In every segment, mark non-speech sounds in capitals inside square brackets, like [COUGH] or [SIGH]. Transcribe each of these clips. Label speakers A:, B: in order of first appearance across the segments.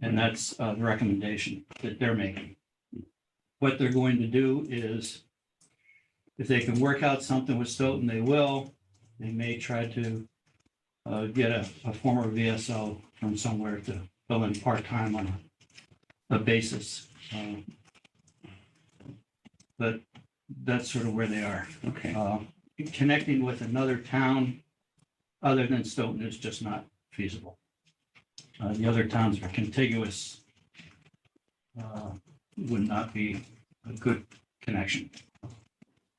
A: And that's uh, the recommendation that they're making. What they're going to do is if they can work out something with Stoughton, they will. They may try to uh, get a, a former VSO from somewhere to fill in part-time on a, a basis. Um, But that's sort of where they are.
B: Okay,
A: Uh, Connecting with another town other than Stoughton is just not feasible. Uh, The other towns are contiguous. uh, Would not be a good connection.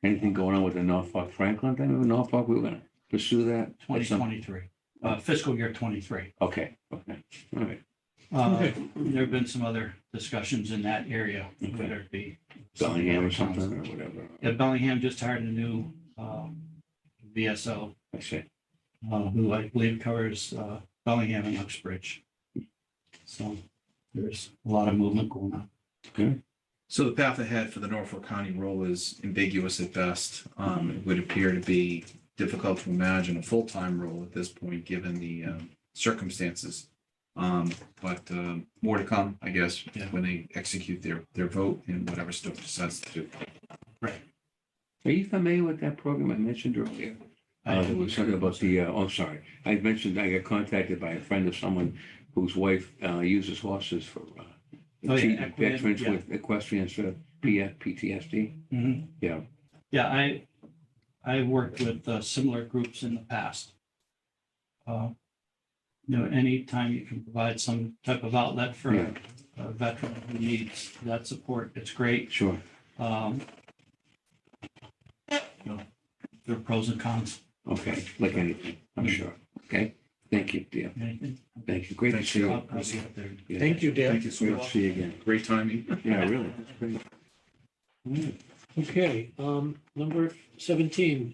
B: anything going on with the Norfolk Franklin thing? Remember Norfolk, we were gonna pursue that? at some-
A: 2023, uh, fiscal year 23.
B: Okay, okay, all right.
A: Uh, There have been some other discussions in that area, whether it be.
B: Bellingham or something or whatever.
A: Yeah, Bellingham just hired a new um, VSO
B: I see.
A: uh, who I believe covers uh, Bellingham and Uxbridge. So there's a lot of movement going on.
C: So the path ahead for the Norfolk County role is ambiguous at best. Um, it would appear to be difficult to imagine a full-time role at this point, given the um, circumstances. Um, but um, more to come, I guess,
A: Yeah.
C: when they execute their their vote and whatever Stoke decides to do.
B: Are you familiar with that program I mentioned earlier?
A: I
B: Uh,
A: do.
B: it was something about the, uh, oh, sorry, I mentioned I got contacted by a friend of someone whose wife, uh, uses horses for,
A: Oh,
B: uh,
A: yeah,
B: treating
A: equine,
B: veterans
A: yeah.
B: with equestrian, stuff, PF, PTSD.
A: Mhm.
B: Mm-hmm. Yeah.
A: Yeah, I, I worked with uh, similar groups in the past. Uh, You know, anytime you can provide some type of outlet for a
B: Yeah.
A: a veteran who needs that support, it's great.
B: Sure,
A: Um, you know, There are pros and cons.
B: okay, like anything, I'm
A: Mm.
B: sure, okay? Thank you, dear,
A: Anything?
B: thank you, great to
C: Thank
B: see you.
A: I'll- I'll see you up there.
B: Yeah.
D: Thank you, Dan.
C: Thank you so
B: Great to
C: much.
B: see you again,
C: Great timing.
B: yeah, really, that's great. Mm.
D: Okay, um, number seventeen.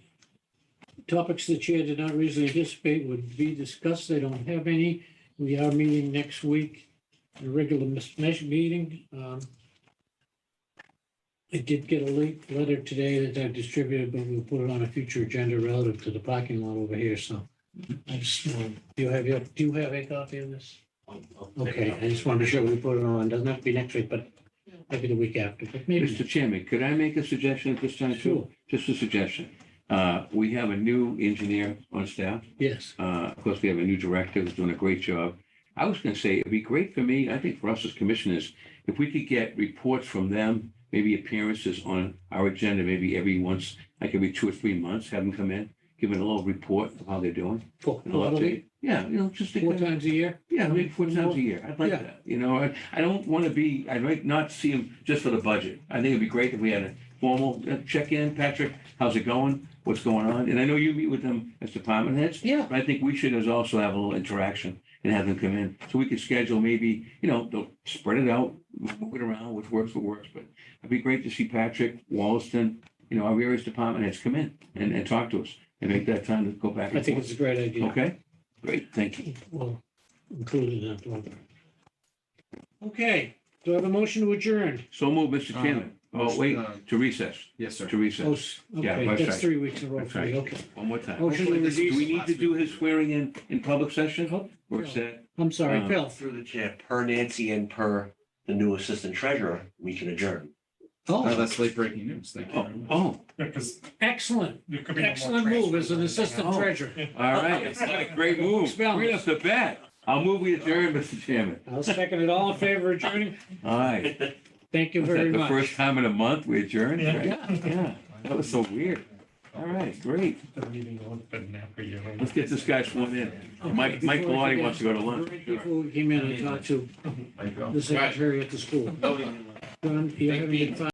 D: Topics the chair did not reasonably anticipate would be discussed. They don't have any. We are meeting next week, a regular mis- mes- meeting. Um, I did get a late letter today that I distributed, but we'll put it on a future agenda relative to the parking lot over here, so. I just, want- do you have, your- do you have a copy of this? Okay, I just wanted to show we put it on. Doesn't have to be next week, but maybe the week after, but maybe.
B: [CLEARS THROAT] Mr. Chairman, could I make a suggestion at this time too?
D: Sure.
B: Just a suggestion. Uh, We have a new engineer on staff.
D: Yes,
B: Uh, Of course, we have a new director who's doing a great job. I was going to say, it'd be great for me, I think for us as commissioners, if we could get reports from them, maybe appearances on our agenda, maybe every once, like every two or three months, have them come in, give it a little report of how they're doing.
D: four,
B: a little update. Yeah, you know, just. to
D: four
B: kind of-
D: times a year.
B: yeah, maybe four times a year. I'd like
D: Yeah.
B: that. You know, I, I don't want to be, I'd like not see him just for the budget. I think it'd be great if we had a formal uh, check-in. Patrick, how's it going? What's going on? And I know you meet with them as department heads,
D: Yeah.
B: but I think we should as also have a little interaction and have them come in. So we could schedule maybe, you know, they'll spread it out, move it around, which works, what works. But it'd be great to see Patrick, Wallaston, you know, our various department heads come in and, and talk to us and make that time to go back
D: I
B: and
D: think
B: forth.
D: it's a great idea.
B: Okay? Great, thank you.
D: Well, included in that one. Okay, do I have a motion to adjourn?
B: So move, Mr. Chairman. Oh, wait,
C: Uh,
B: to recess,
C: Yes, sir.
B: to
D: Oh,
B: recess.
D: s-
B: Yeah,
D: okay,
B: that's
D: that's
B: right.
D: three weeks in a row,
B: That's right.
D: three, okay.
B: One more time.
D: Motion
B: Do
D: to
B: we
D: release,
B: need to do his swearing in, in public session?
D: Oh,
B: Or is that,
D: I'm sorry,
B: Uh,
D: Phil.
E: Through the chair, per Nancy and per the new assistant treasurer, we can adjourn.
C: Oh,
D: Oh,
C: that's late breaking news. Thank you.
B: oh,
C: very much.
B: oh,
F: Yeah, because
D: excellent,
F: there could be. no more
D: excellent move as an
F: transfers.
D: assistant
B: Oh.
D: treasurer.
B: all right. It's not a great move. Right off the bat. I'll move we adjourn, Mr. Chairman.
D: I'll second it. All in favor of adjourning?
B: All right.
D: Thank you
B: Was that
D: very
B: the
D: much.
B: first time in a month we adjourned?
F: Yeah.
B: right? Yeah, that was so weird. All right, great.
F: The meeting won't have been after you.
B: Let's get this guy sworn in.
D: Okay,
B: Mike, Mike
D: before I
B: Maloney
D: forget,
B: wants to go to lunch.
D: right
B: Sure.
D: Before we came in, I talked to
C: There you go.
D: the secretary at the school. John, you have any